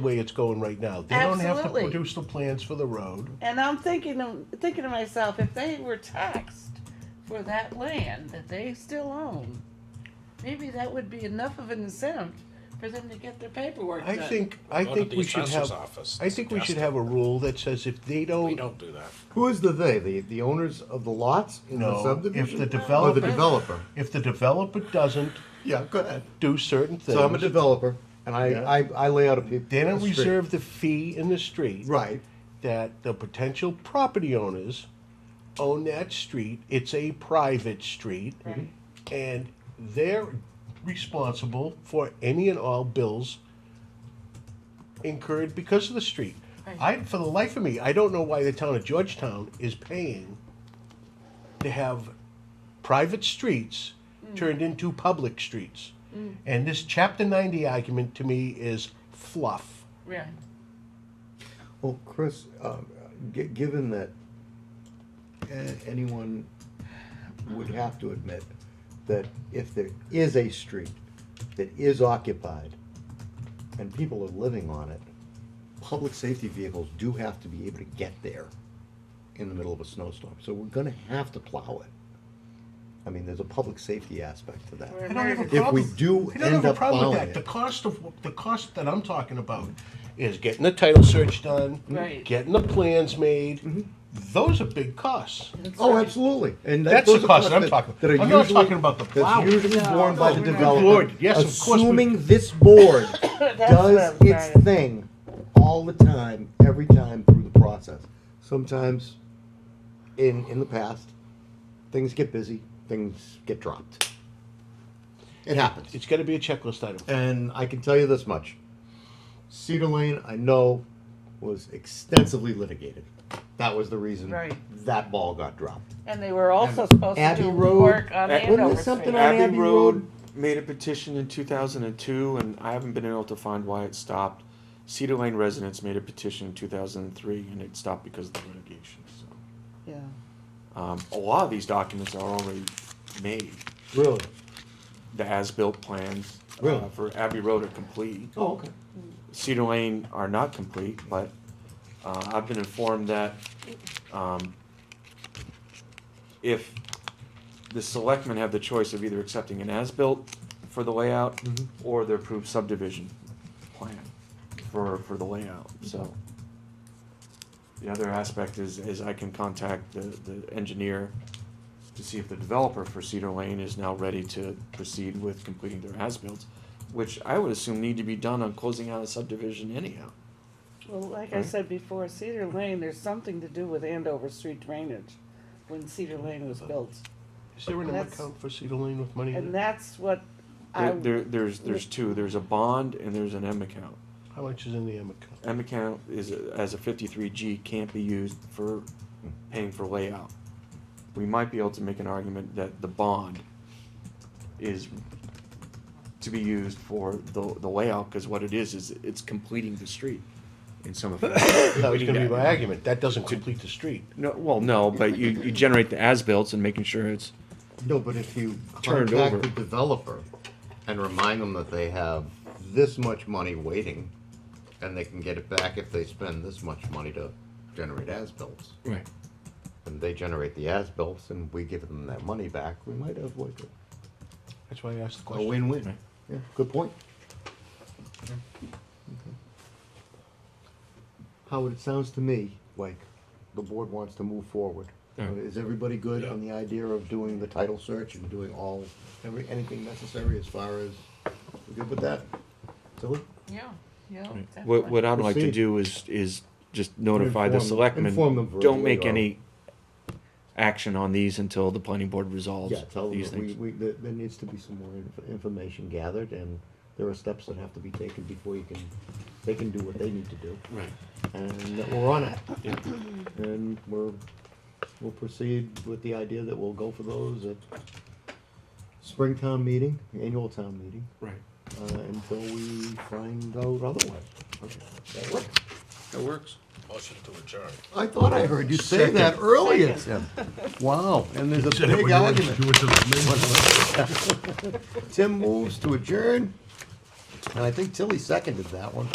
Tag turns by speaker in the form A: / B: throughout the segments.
A: the way it's going right now. They don't have to
B: Absolutely.
A: produce the plans for the road.
B: And I'm thinking, of- thinking to myself, if they were taxed for that land that they still own, maybe that would be enough of an incentive for them to get their paperwork
A: I
B: done.
A: think, I
C: Go to
A: think
C: the
A: we should
C: assessor's
A: have,
C: office.
A: I think we should
C: Ask
A: have a rule that says if they
C: them. We
A: don't,
C: don't do that.
D: Who is the they? The the owners of the lots in the
A: no, if
D: subdivision?
A: the
D: or the
A: developer,
D: developer?
A: if the developer doesn't
D: Yeah, go ahead.
A: do certain things.
D: So I'm a developer, and I,
A: Yeah.
D: I, I lay out a pe-
A: They
D: a
A: don't
D: street.
A: reserve the fee in the street.
D: Right.
A: That the potential property owners own that street, it's a private street. And they're responsible for any and all bills incurred because of the street. I, for the life of me, I don't know why the town of Georgetown is paying to have private streets turned into public streets. And this chapter ninety argument to me is fluff.
B: Yeah.
D: Well, Chris, um, g- given that uh, anyone would have to admit that if there is a street that is occupied and people are living on it, public safety vehicles do have to be able to get there in the middle of a snowstorm. So we're going to have to plow it. I mean, there's a public safety aspect to that.
B: We're
A: I don't have a
B: If we
A: problem.
D: do
A: I don't
D: end
A: have a
D: up
A: problem with
D: plowing
A: that.
D: it.
A: The cost of, the cost that I'm talking about is getting the title search done.
B: Right.
A: Getting the plans
D: Mm-hmm.
A: made. Those are big costs.
D: Oh, absolutely, and that-
A: That's
D: those
A: the
D: are
A: cost
D: costs
A: I'm
D: that-
A: talking-
D: That are
A: I'm not
D: usually-
A: talking about the plow.
D: That's usually
B: No,
D: borne by
B: no,
D: the
B: no. Good
D: developer.
A: Lord, yes, of course we-
D: Assuming this board
B: That's
D: does
B: what I'm
D: its
B: saying.
D: thing all the time, every time through the process. Sometimes, in in the past, things get busy, things get dropped. It happens.
A: It's gotta be a checklist item.
D: And I can tell you this much. Cedar Lane, I know, was extensively litigated. That was the reason
B: Right.
D: that ball got dropped.
B: And they were also
D: And
B: supposed to
D: Abbey
B: do
D: Road-
B: work on
E: Wasn't
B: Andover
D: there something
B: Street.
D: on-
E: Abbey
D: Abbey
E: Road
D: Road.
E: made a petition in 2002, and I haven't been able to find why it stopped. Cedar Lane residents made a petition in 2003, and it stopped because of the litigation. So,
B: Yeah.
E: um, a lot of these documents are already made.
D: Really?
E: The as-built plans uh,
D: Really?
E: for Abbey Road are complete.
D: Oh, okay.
E: Cedar Lane are not complete, but uh, I've been informed that um, if the selectmen have the choice of either accepting an as-built for the layout or the approved subdivision plan for, for the layout, so. The other aspect is, is I can contact the, the engineer to see if the developer for Cedar Lane is now ready to proceed with completing their as-builts, which I would assume need to be done on closing out a subdivision anyhow.
B: Well, like I said before, Cedar Lane, there's something to do with Andover Street drainage when Cedar Lane was built.
A: Is there an
B: That's-
A: account for Cedar Lane with money
B: And
A: in it?
B: that's what I,
E: There, there- there's, there's two, there's a bond and there's an M account.
A: How much is in the M account?
E: M account is, a- as a fifty-three G, can't be used for paying for layout. We might be able to make an argument that the bond is to be used for the, the layout, cause what it is, is it's completing the street in some effect.
A: That was
E: We need
A: gonna be
E: to-
A: my argument. That doesn't complete the street.
E: No, well, no, but you, you generate the as-built and making sure it's,
D: No, but if you
E: Turned over.
D: contact the developer and remind them that they have this much money waiting, and they can get it back if they spend this much money to generate as-bills,
E: right,
D: and they generate the as-bills, and we give them their money back, we might avoid it.
A: That's why I
E: Oh,
A: asked the
D: A
A: question.
D: win-win.
E: Right.
D: Yeah, good point. Howard, it sounds to me like the board wants to move forward. Uh,
E: Yeah.
D: Is everybody good on the idea of doing the title search and doing all, every, anything necessary as far as, we good with that? Tilly?
B: yeah, yeah.
E: Mm. What, what I'd like to
D: Proceed.
E: do is, is just notify the
D: Inform-
E: selectmen,
D: inform them verbally
E: don't make
D: or-
E: any action on these until the planning board resolves
D: Yeah, tell them
E: these
D: that we,
E: things.
D: we, there, there needs to be some more inf- information gathered and there are steps that have to be taken before you can, they can do what they need to do.
E: Right.
D: and that we're on it. And we're, we'll proceed with the idea that we'll go for those at spring town meeting, annual town meeting,
E: Right.
D: uh, until we find out otherwise. That works.
E: That works.
C: Motion to adjourn.
D: I thought I heard you say that earlier. Wow, and there's a big argument. Tim moves to adjourn, and I think Tilly seconded that one.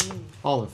D: All in